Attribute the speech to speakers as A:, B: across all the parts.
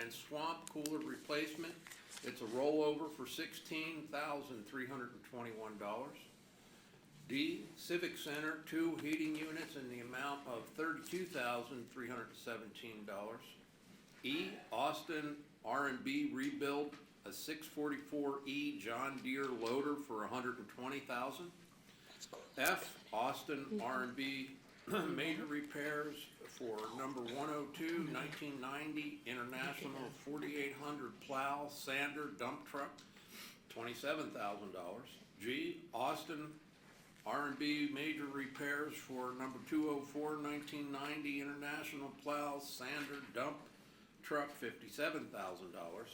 A: and swamp cooler replacement. It's a rollover for sixteen thousand three hundred and twenty-one dollars. D, Civic Center, two heating units in the amount of thirty-two thousand three hundred and seventeen dollars. E, Austin R and B rebuild, a six forty-four E John Deere loader for $120,000. F, Austin R and B major repairs for number 102, 1990 International forty-eight hundred plow, sander, dump truck, twenty-seven thousand dollars. G, Austin R and B major repairs for number 204, 1990 International plow, sander, dump truck, fifty-seven thousand dollars.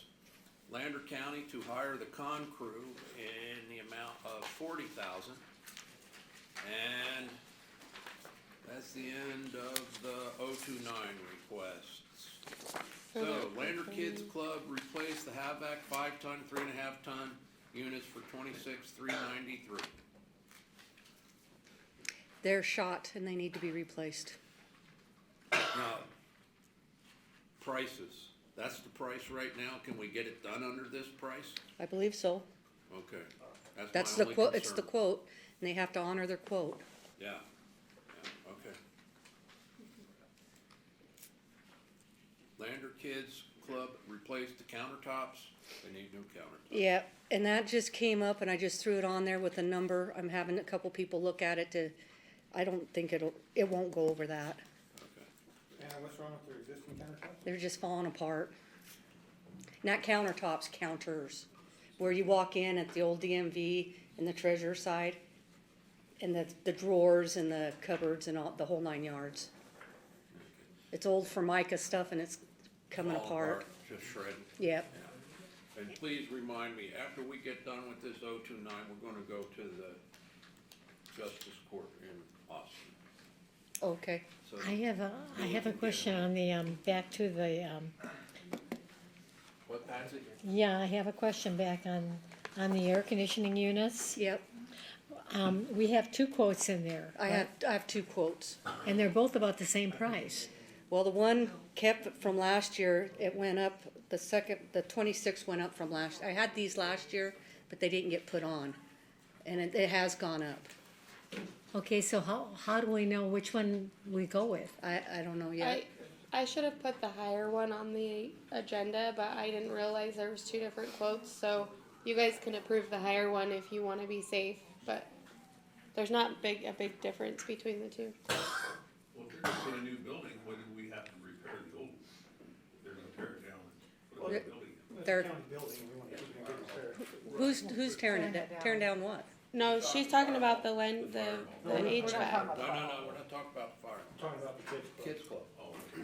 A: Lander County to hire the con crew in the amount of forty thousand. And that's the end of the 029 requests. So Lander Kids Club replaced the Havac five ton, three and a half ton units for twenty-six, three ninety-three.
B: They're shot and they need to be replaced.
A: Now, prices, that's the price right now, can we get it done under this price?
B: I believe so.
A: Okay,
B: That's
A: that's my
B: the
A: only
B: quote, it's the
A: concern.
B: quote, and they have to honor their quote.
A: Yeah, yeah, okay. Lander Kids Club replaced the countertops, they need new countertops.
B: Yeah, and that just came up and I just threw it on there with a number. I'm having a couple people look at it to, I don't think it'll, it won't go over that.
A: Okay.
C: Anna, what's wrong with their existing countertops?
B: They're just falling apart. Not countertops, counters, where you walk in at the old DMV and the treasurer side, and the, the drawers and the cupboards and all, the whole nine yards. It's old Formica stuff and it's coming
A: All
B: apart.
A: Just shredded.
B: Yep,
A: Yeah. And please remind me, after we get done with this 029, two nine, we're gonna go to the Justice Court in Austin.
B: okay.
A: So
D: I have a, I have a question on the, um, back to the, um,
A: What, Patsy?
D: yeah, I have a question back on, on the air conditioning units.
B: Yep,
D: Um, we have two quotes in there.
B: I have, I have two quotes.
D: And they're both about the same price.
B: Well, the one kept from last year, it went up, the second, the twenty-six went up from last, I had these last year, but they didn't get put on. And it, it has gone up.
D: Okay, so how, how do we know which one we go with?
B: I, I don't know
E: I,
B: yet.
E: I should have put the higher one on the agenda, but I didn't realize there was two different quotes, so you guys can approve the higher one if you wanna be safe, but there's not big, a big difference between the two.
F: Well, if you're gonna put a new building, whether we have to repair the old, one? they're gonna tear it down and put a new building. in.
B: They're-
C: It's a county building, we want to keep it in good repair.
B: Who's, who's tearing it, down? tearing down what?
E: No, she's talking about the len, the, the HVAC.
A: No, no, no, we're not talking about the fire.
C: Talking about the kids' club.
A: Kids Club. Oh, okay.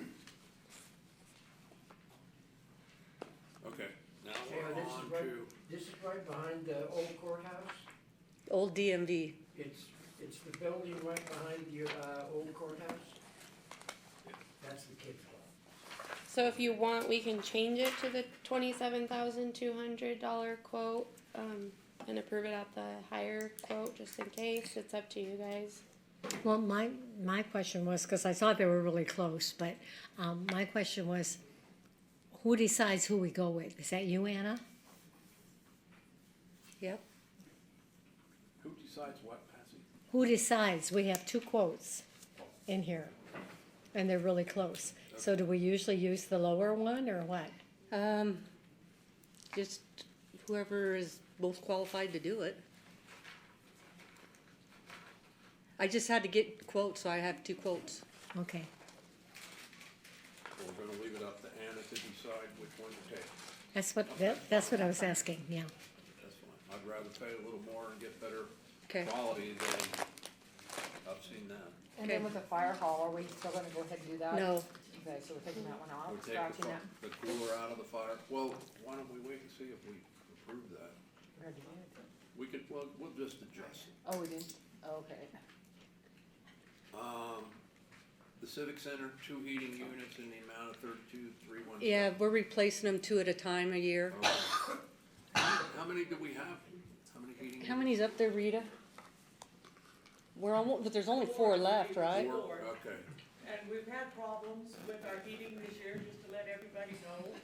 A: Okay, now
G: Sarah,
A: we're
G: this
A: on
G: is right,
A: to,
G: this is right behind the old courthouse.
B: Old DMV.
G: It's, it's the building right behind your, uh, old courthouse. That's the kids club.
E: So if you want, we can change it to the twenty-seven thousand two hundred dollar quote, um, and approve it at the higher quote, just in case, it's up to you guys.
D: Well, my, my question was, because I thought they were really close, but, um, my question was, who decides who we go with? Is that you, Anna?
B: Yep.
A: who decides what, Patsy?
D: Who decides? We have two quotes in here, and they're really close. So do we usually use the lower one, or what?
B: Um, just whoever is most qualified to do it. I just had to get quotes, so I have two quotes.
D: Okay,
A: We're gonna leave it up to Anna to decide which one to take.
D: that's what, that- that's what I was asking, yeah.
A: That's fine. I'd rather pay a little more and get better
B: Okay.
A: quality than, I've seen that.
H: And then
B: Okay.
H: with the fire hall, are we still gonna go ahead and do that?
B: No.
H: Okay, so we're taking that one
A: We
H: off,
A: take the
H: scratching
A: fi- the
H: that.
A: cooler out of the fire. Well, why don't we wait and see if we approve that?
H: We're gonna do it.
A: We could, well, we'll just adjust it.
H: Oh, we didn't, okay.
A: Um, the Civic Center, two heating units in the amount of thirty-two, three one.
B: Yeah, we're replacing them two at a time a year.
A: How many do we have? How many heating?
B: How
A: units?
B: many's up there, Rita? We're almost, but there's only four left, right?
A: Four, okay.
I: And we've had problems with our heating this year, just to let everybody know.